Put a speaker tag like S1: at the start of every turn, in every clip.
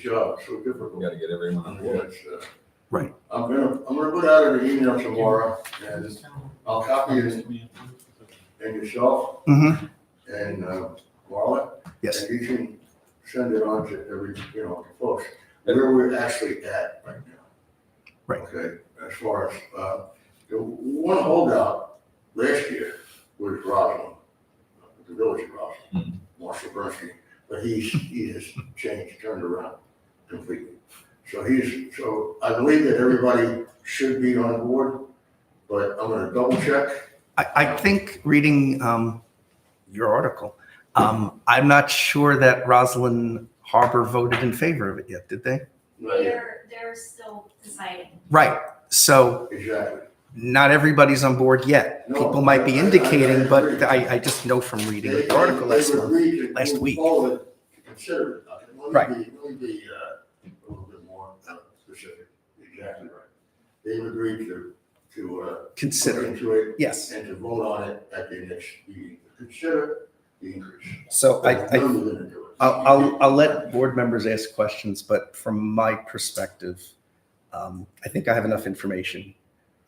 S1: job, so difficult.
S2: We gotta get everyone on
S1: Yeah,
S2: board.
S1: it's, uh,
S3: Right.
S1: I'm gonna, I'm gonna put out an email tomorrow, and I'll copy it and yourself
S3: Mm-hmm.
S1: and, uh, Marla.
S3: Yes.
S1: And you can send it on to every, you know, to folks, where we're actually at right now.
S3: Right.
S1: Okay, as far as, uh, the one holdout last year was Roslin, the village of Roslin,
S3: Mm-hmm.
S1: Marshall Bernstein, but he's, he has changed, turned around completely. So he's, so I believe that everybody should be on board, but I'm gonna double check.
S3: I, I think reading um, your article, um, I'm not sure that Roslyn Harbor voted in favor of it yet, did they?
S1: Not yet.
S4: They're, they're still deciding.
S3: Right. So
S1: Exactly.
S3: not everybody's on board yet.
S1: No,
S3: People might be
S1: I- I- I
S3: indicating, but
S1: agree.
S3: I, I just know from reading
S1: They-
S3: the article
S1: they
S3: last
S1: would
S3: month.
S1: agree to
S3: last
S1: move
S3: week.
S1: forward to Consider it. Uh, let me
S3: Right.
S1: be- Let me be, uh, a little bit more uh, specific. Exactly right. They've agreed to, to, uh, look
S3: Consider,
S1: into it
S3: yes.
S1: and to vote on it at the next meeting. Consider the increase.
S3: So I,
S1: But
S3: I
S1: none of them are doing it.
S3: I'll, I'll, I'll let board members ask questions, but from my perspective, um, I think I have enough information.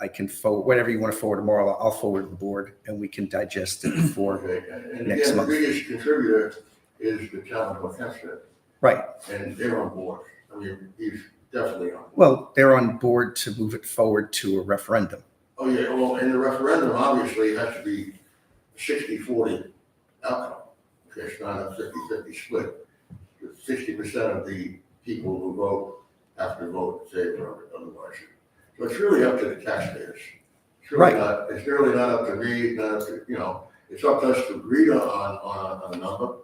S3: I can forward, whatever you want to forward tomorrow, I'll forward to the board and we can digest it for,
S1: Okay, and- and
S3: next
S1: again, the
S3: month.
S1: biggest contributor is the town of North Hempstead,
S3: right.
S1: and they're on board. I mean, he's definitely on.
S3: Well, they're on board to move it forward to a referendum.
S1: Oh, yeah, well, and the referendum obviously has to be 60-40 outcome. Okay, It's not a 50-50 split. Sixty percent of the people who vote have to vote in favor of it, otherwise. So it's really up to the taxpayers. It's really
S3: Right.
S1: not- It's really not up to me, not up to, you know, it's up to us to agree on, on, on a number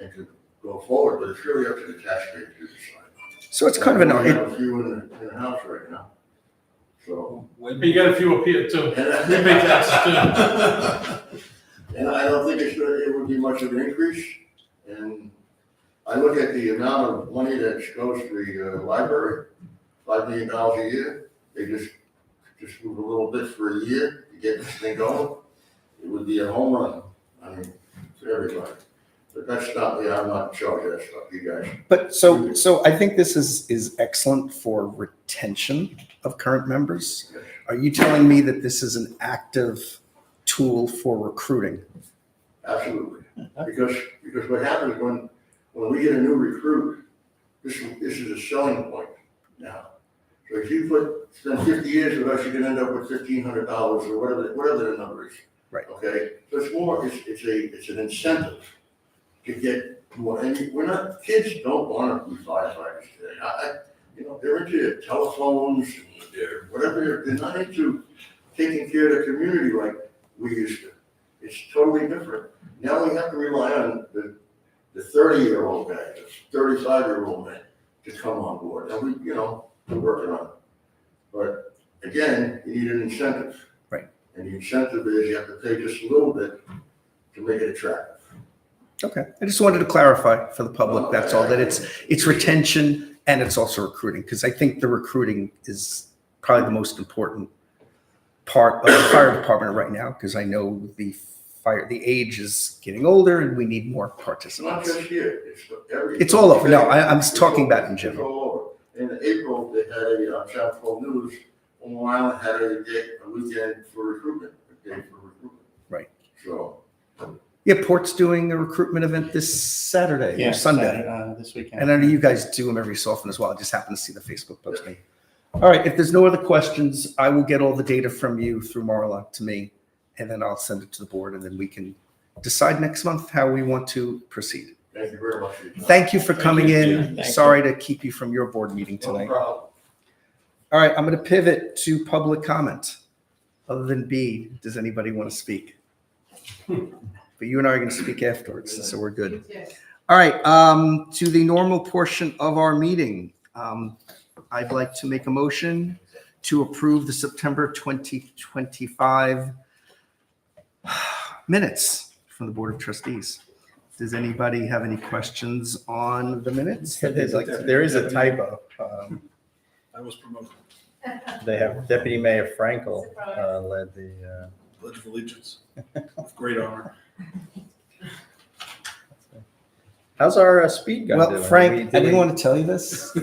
S1: and to go forward, but it's really up to the taxpayers to decide.
S3: So it's kind of an,
S1: We
S3: it-
S1: have a few in the, in the house right now, so.
S5: You got a few up here too.
S1: And I
S5: They
S1: think
S5: pay taxes
S1: And I don't think it's, gonna- it would be much of an increase. And I look at the amount of money that goes to the uh, library, five million dollars a year. They just, just move a little bit for a year to get this thing going. It would be a home run, I mean, for everybody. But that's not me, I'm not in charge of that stuff, you guys.
S3: but so, so I think this is, is excellent for retention of current members. Are you telling me that this is an active tool for recruiting?
S1: Absolutely. Because, because what happens when, when we get a new recruit, this, this is a selling point now. So if you put, spend fifty years with us, you're gonna end up with fifteen hundred dollars or whatever, whatever the number is.
S3: Right.
S1: Okay, so it's more, it's, it's a, it's an incentive to get more, and we're not, kids don't wanna be firefighters today. I, I, you know, they're into their telephones and their, whatever, they're, they're not into taking care of the community like we used to. It's totally different. Now we have to rely on the, the thirty-year-old guy, the thirty-five-year-old man to come on board. And we, you know, we're working on it. But again, you need an incentive.
S3: Right.
S1: And the incentive is you have to pay just a little bit to make it attractive.
S3: Okay, I just wanted to clarify for the public, that's all, that it's, it's retention and it's also recruiting, because I think the recruiting is probably the most important part of the fire department right now, because I know the fire, the age is getting older and we need more
S1: It's not
S3: participants.
S1: just here, it's every.
S3: It's all over. No, I- I'm talking about in
S1: It's
S3: general.
S1: all over. In April, they had a, uh, Chapel News, on Long Island had a day, a weekend for recruitment, a day for recruitment.
S3: Right.
S1: So,
S3: Yeah, Port's doing a recruitment event this Saturday
S6: Yeah,
S3: or Sunday.
S6: Saturday, uh, This weekend.
S3: And I know you guys do them every so often as well. I just happened to see the Facebook posting. All right, if there's no other questions, I will get all the data from you through Marla to me, and then I'll send it to the board, and then we can decide next month how we want to proceed.
S1: thank you very much. for your time.
S3: Thank you for
S5: Thank
S3: coming
S5: you.
S3: in.
S6: Thank
S3: Sorry to keep you from your board meeting
S1: No
S3: tonight.
S1: problem.
S3: All right, I'm going to pivot to public comment. Other than B, does anybody want to speak? But you and I are going to speak afterwards, so we're good. All right, um, to the normal portion of our meeting. Um, I'd like to make a motion to approve the September 2025 minutes from the Board of Trustees. Does anybody have any questions on the minutes? that they'd like to- There is a typo. Um,
S7: I was promoted,
S8: They have Deputy Mayor Frankel
S4: Surprise.
S8: uh, led the,
S7: Pledge of Allegiance, with great
S8: uh,
S7: honor.
S8: How's our uh, speed gun doing?
S3: Well,
S8: Are we
S3: Frank, I
S8: doing-
S3: didn't want to tell you this.